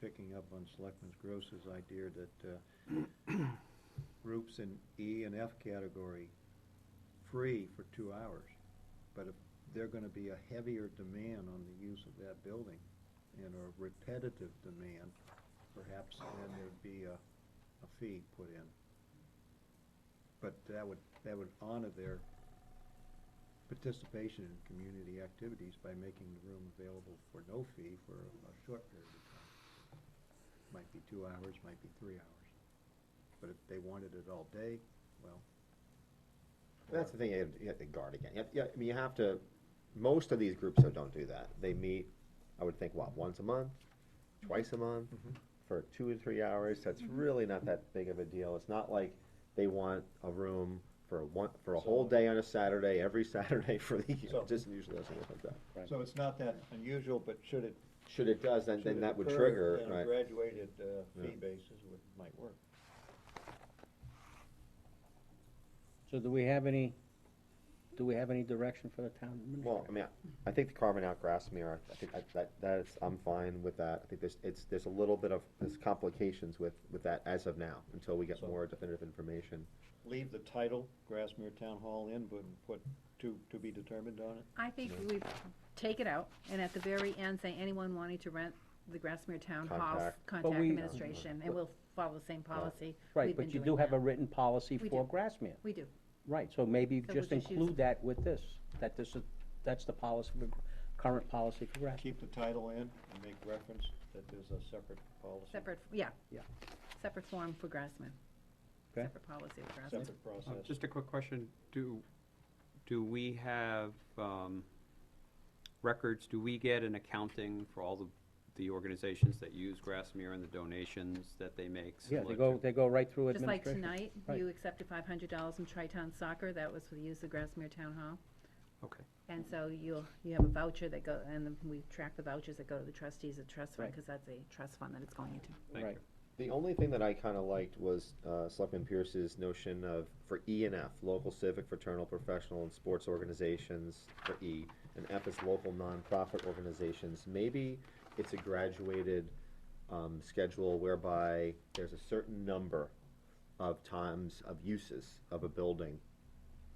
picking up on Selectman Gross's idea that uh, groups in E and F category, free for two hours. But if they're gonna be a heavier demand on the use of that building and a repetitive demand, perhaps then there'd be a, a fee put in. But that would, that would honor their participation in community activities by making the room available for no fee for a short period of time. Might be two hours, might be three hours. But if they wanted it all day, well, That's the thing you have to- you have to guard against. You have- Yeah, I mean, you have to, most of these groups though don't do that. They meet, I would think, what, once a month, twice a month, Mm-hmm. for two or three hours. That's really not that big of a deal. It's not like they want a room for a one, for a whole day on a Saturday, every Saturday for the year. So- It just usually doesn't work like that. Right. so it's not that unusual, but should it, Should it does, then, should then it that would occur trigger, on a right? graduated, uh, fee Yeah. basis would, might work. So do we have any, do we have any direction for the town Well, administrator? I mean, I- I think the carving out grass mirror, I think that- that, that is, I'm fine with that. I think there's, it's, there's a little bit of, there's complications with, with that as of now, until we get So- more definitive information. Leave the title, Grassmere Town Hall in, but put to, to be determined on it? I think we take it out, and at the very end, say anyone wanting to rent the Grassmere Town Hall, Contact. contact we- administration, and we'll follow the same policy Right, we've been but you doing do have now. a written policy We for do. Grassmere, We do, right, so maybe So we'll just just use include it. that with this, that this is, that's the policy, for Gr- current policy for Grassmere. Keep the title in and make reference that there's a separate policy. separate, yeah. Yeah. Separate form for Grassmere. Okay. Separate policy of Grassmere. Separate Uh, process. Just a quick question, do, do we have, um, records, do we get an accounting for all the, the organizations that use Grassmere and the donations that they make? Yeah, they similar go, to- they go right through Just like administration. tonight, Right. you accepted five hundred dollars from Tri-Town Soccer, that was for the use of Grassmere Town Hall. Okay, And so you'll, you have a voucher that go, and then we track the vouchers that go to the trustees of trust fund, Right. because that's a trust fund that it's going into. thank Right. you. The only thing that I kinda liked was, uh, Selectman Pierce's notion of, for E and F, local civic, fraternal, professional, and sports organizations for E, and F is local nonprofit organizations. Maybe it's a graduated, um, schedule whereby there's a certain number of times of uses of a building.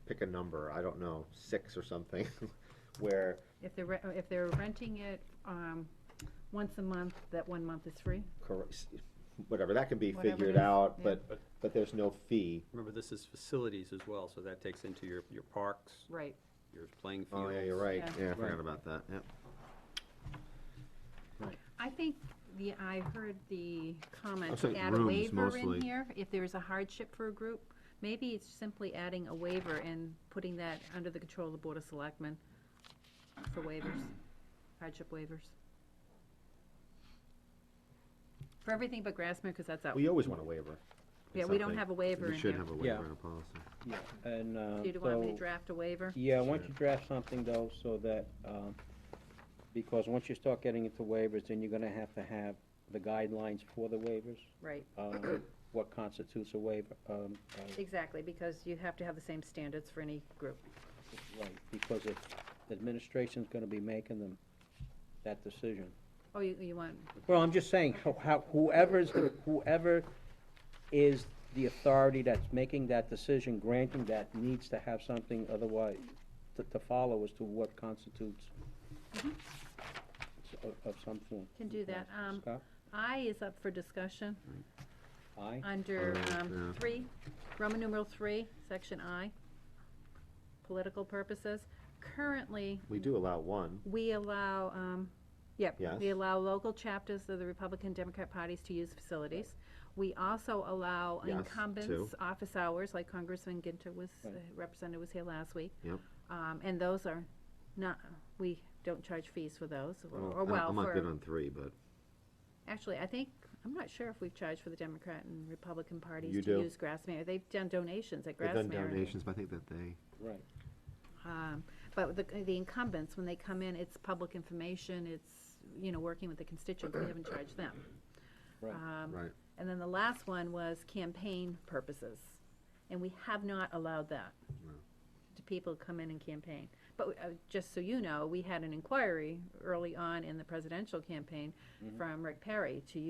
Pick a number, I don't know, six or something, where, If they're, re- if they're renting it, um, once a month, that one month is free? cor- whatever, that can be Whatever it figured is, out, yeah. but, but there's no fee. Remember, this is facilities as well, so that takes into your, your parks, Right. your playing fields. Oh, yeah, you're right. Yeah. Yeah, I Right. forgot about that, yeah. I think the, I heard the comment, said add a rooms waiver in mostly. here, if there's a hardship for a group. Maybe it's simply adding a waiver and putting that under the control of the Board of Selectmen for waivers, hardship waivers. For everything but Grassmere, because that's out. We always want a waiver. Yeah, we don't have a waiver in We should here. have a Yeah. waiver in our policy. Yeah, and, uh, Do you want me to so- draft a waiver? Yeah, why don't you draft something though, so that, um, because once you start getting into waivers, then you're gonna have to have the guidelines for the waivers, Right, um, what constitutes a waiver, um, uh, exactly, because you have to have the same standards for any group. Right, because if the administration's gonna be making them, that decision. Oh, you, you want, Well, I'm just saying, how- how, whoever's, the- whoever is the authority that's making that decision, granting that, needs to have something otherwise to, to follow as to what constitutes s- of, of some form. Mm-hmm. Can do that, um, Scott? I is up for discussion. Aye? Under Alright, um, yeah. three, Roman numeral three, section I, political purposes. Currently, We do allow one. we allow, um, yep, we Yes. allow local chapters of the Republican Democrat parties to use facilities. We also allow Yes, incumbents' too. office hours, like Congressman Ginter was, Right. uh, Representative was here last week. Yep. Um, And those are not, we don't charge fees for those, or- Well, or Oh, I'm- Oh, well, I'm not good for, on three, but actually, I think, I'm not sure if we've charged for the Democrat and Republican You parties to do. use Grassmere. They've done donations at they've done Grassmere. and- donations, but I think that they, Right. um, But the, the incumbents, when they come in, it's public information, it's, you know, working with the constituents, we haven't charged them. Right. Um, right. And then the last one was campaign purposes, and we have not allowed that No. to people who come in and campaign. But uh, just so Mm-hmm. you know, we had an inquiry early on in the presidential campaign from Rick Perry to